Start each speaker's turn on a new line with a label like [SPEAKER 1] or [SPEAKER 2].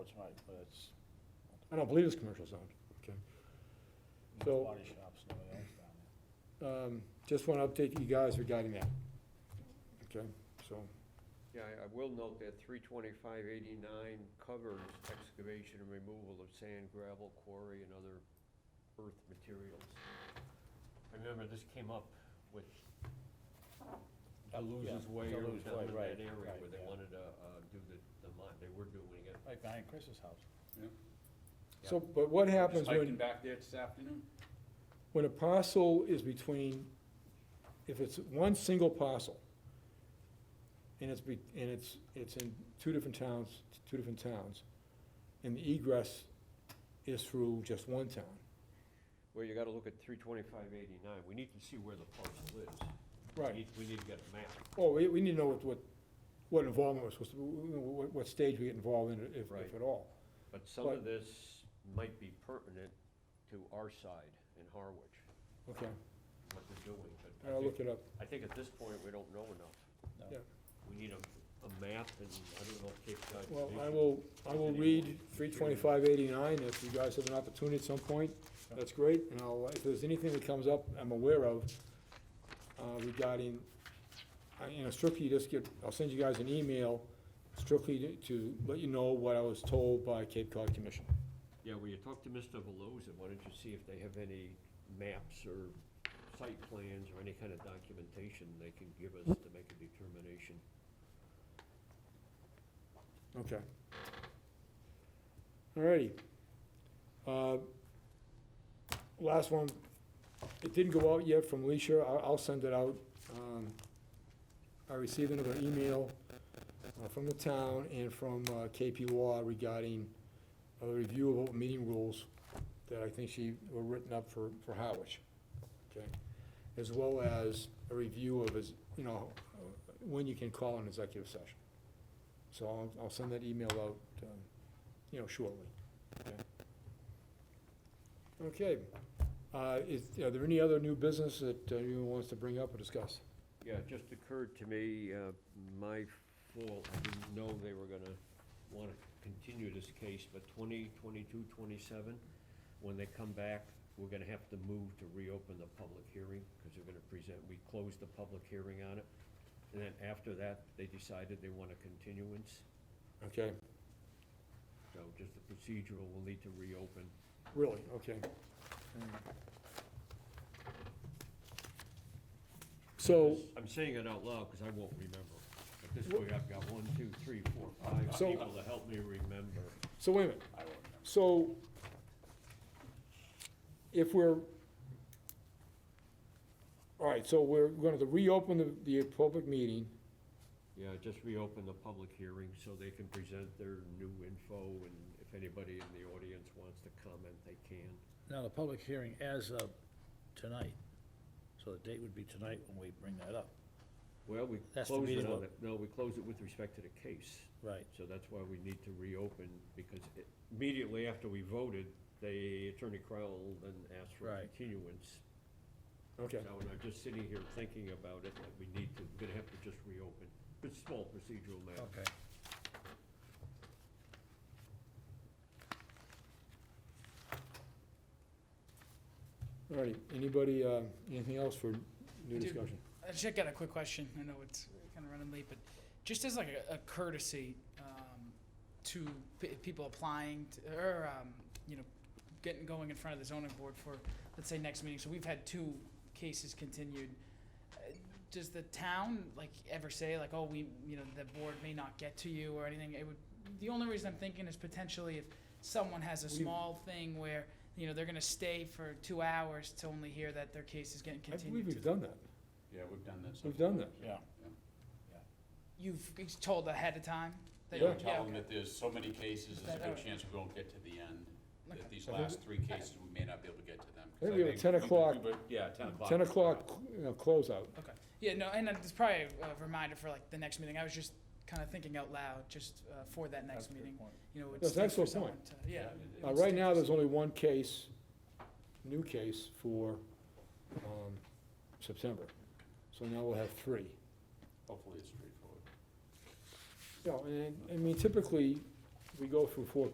[SPEAKER 1] It's right, but it's
[SPEAKER 2] I don't believe it's commercial zoned. So-
[SPEAKER 1] body shops, nobody else down there.
[SPEAKER 2] Um, Just want to update you guys regarding that. Okay, so,
[SPEAKER 3] Yeah, I- I will note that three twenty-five eighty-nine covers excavation and removal of sand, gravel, quarry, and other earth materials. I remember this came up with Deluse's
[SPEAKER 1] yeah,
[SPEAKER 3] Way or
[SPEAKER 1] Deleuze
[SPEAKER 3] down
[SPEAKER 1] Way,
[SPEAKER 3] in
[SPEAKER 1] right,
[SPEAKER 3] that area
[SPEAKER 1] right,
[SPEAKER 3] where they
[SPEAKER 1] yeah.
[SPEAKER 3] wanted to, uh, do the, the mine, they were doing it.
[SPEAKER 1] Right behind Chris's house.
[SPEAKER 2] so, but what happens
[SPEAKER 4] Just hiking
[SPEAKER 2] when,
[SPEAKER 4] back there this afternoon.
[SPEAKER 2] when a parcel is between, if it's one single parcel, and it's be, and it's, it's in two different towns, two different towns, and the egress is through just one town.
[SPEAKER 3] Well, you gotta look at three twenty-five eighty-nine, we need to see where the parcel is. We need- We need to get a map.
[SPEAKER 2] Oh, we, we need to know what, what, what involvement was supposed to, what, what stage we get involved in, if,
[SPEAKER 3] Right.
[SPEAKER 2] if at all.
[SPEAKER 3] But some of
[SPEAKER 2] But-
[SPEAKER 3] this might be pertinent to our side in Harwich,
[SPEAKER 2] Okay,
[SPEAKER 3] what they're doing, but I
[SPEAKER 2] I'll look
[SPEAKER 3] think-
[SPEAKER 2] it up.
[SPEAKER 3] I think at this point, we don't know enough.
[SPEAKER 1] No.
[SPEAKER 2] Yeah.
[SPEAKER 3] We need a, a map and I don't know if Cape Cod.
[SPEAKER 2] Well, I
[SPEAKER 3] Commission-
[SPEAKER 2] will, I will read three twenty-five eighty-nine, if you guys have an opportunity at some point, that's great, and I'll, if there's anything that comes up I'm aware of, uh, regarding, I, you know, strictly just get, I'll send you guys an email strictly to, to let you know what I was told by Cape Cod Commission.
[SPEAKER 3] Yeah, well, you talk to Mr. Veloza, why don't you see if they have any maps or site plans or any kind of documentation they can give us to make a determination.
[SPEAKER 2] Okay. Alrighty. Uh, Last one, it didn't go out yet from Leisha, I'll, I'll send it out. Um, I received another email uh, from the town and from uh, KP Law regarding a review of open meeting rules that I think she, were written up for, for Howard. Okay? As well as a review of his, you know, when you can call an executive session. So I'll, I'll send that email out, um, you know, shortly. Okay, uh, is, are there any other new business that uh, anyone wants to bring up or discuss?
[SPEAKER 3] Yeah, it just occurred to me, uh, my fault, I didn't know they were gonna wanna continue this case, but 20, 22, 27, when they come back, we're gonna have to move to reopen the public hearing, because they're gonna present, we closed the public hearing on it. And then after that, they decided they want a continuance,
[SPEAKER 2] Okay,
[SPEAKER 3] so just the procedural, we'll need to reopen.
[SPEAKER 2] really, okay. So,
[SPEAKER 3] I'm saying it out loud, because I won't remember. At this point, I've got one, two, three, four, five
[SPEAKER 2] So-
[SPEAKER 3] people to help me remember.
[SPEAKER 2] so wait a minute. So if we're, all right, so we're going to reopen the, the public meeting.
[SPEAKER 3] Yeah, just reopen the public hearing so they can present their new info, and if anybody in the audience wants to comment, they can.
[SPEAKER 5] Now, the public hearing as of tonight, so the date would be tonight when we bring that up.
[SPEAKER 3] Well, we
[SPEAKER 5] That's the
[SPEAKER 3] close it
[SPEAKER 5] meeting
[SPEAKER 3] on,
[SPEAKER 5] vote.
[SPEAKER 3] the- no, we close it with respect to the case,
[SPEAKER 5] Right.
[SPEAKER 3] so that's why we need to reopen, because it- immediately after we voted, the Attorney Crowell then asked for a
[SPEAKER 5] Right.
[SPEAKER 3] continuance.
[SPEAKER 2] Okay.
[SPEAKER 3] So, and I'm just sitting here thinking about it, that we need to, we're gonna have to just reopen. It's a small procedural matter.
[SPEAKER 5] Okay.
[SPEAKER 2] All righty, anybody, uh, anything else for new
[SPEAKER 6] Dude.
[SPEAKER 2] discussion?
[SPEAKER 6] I just got a quick question. I know it's kind of running late, but just as like a, a courtesy um, to p- people applying to, or um, you know getting going in front of the zoning board for let's say next meeting. So we've had two cases continued. Uh, Does the town like ever say like oh we you know the board may not get to you or anything? It would. The only reason I'm thinking is potentially if someone has a
[SPEAKER 2] We-
[SPEAKER 6] small thing where you know they're going to stay for two hours to only hear that their case is getting
[SPEAKER 2] I
[SPEAKER 6] continued.
[SPEAKER 2] believe
[SPEAKER 6] to
[SPEAKER 2] we've done that.
[SPEAKER 4] Yeah, we've done that.
[SPEAKER 2] We've done that.
[SPEAKER 1] Yeah.
[SPEAKER 6] You've told ahead of time? that
[SPEAKER 2] Yeah.
[SPEAKER 6] you-
[SPEAKER 4] Tell them
[SPEAKER 6] okay.
[SPEAKER 4] that there's so many cases, there's a good chance we won't get to the end.
[SPEAKER 6] Okay.
[SPEAKER 4] That these last three cases, we may not be able to get to them. 'cause
[SPEAKER 2] I think we have a 10
[SPEAKER 4] we-
[SPEAKER 2] o'clock-
[SPEAKER 4] we were- Yeah, ten o'clock.
[SPEAKER 2] Ten o'clock, you know, closeout.
[SPEAKER 6] Okay. Yeah, no, and uh, it's probably a reminder for like the next meeting. I was just kind of thinking out loud, just uh, for that
[SPEAKER 1] That's a
[SPEAKER 6] next
[SPEAKER 1] good
[SPEAKER 6] meeting.
[SPEAKER 1] point.
[SPEAKER 6] You know, it would
[SPEAKER 2] That's
[SPEAKER 6] stay for
[SPEAKER 2] excellent
[SPEAKER 6] someone
[SPEAKER 2] point.
[SPEAKER 6] to, yeah.
[SPEAKER 4] it-
[SPEAKER 2] Uh,
[SPEAKER 4] it's-
[SPEAKER 2] right now, there's only one case, new case for, um, September. So now we'll have three.
[SPEAKER 4] Hopefully it's straightforward.
[SPEAKER 2] You know, and, I mean, typically, we go through four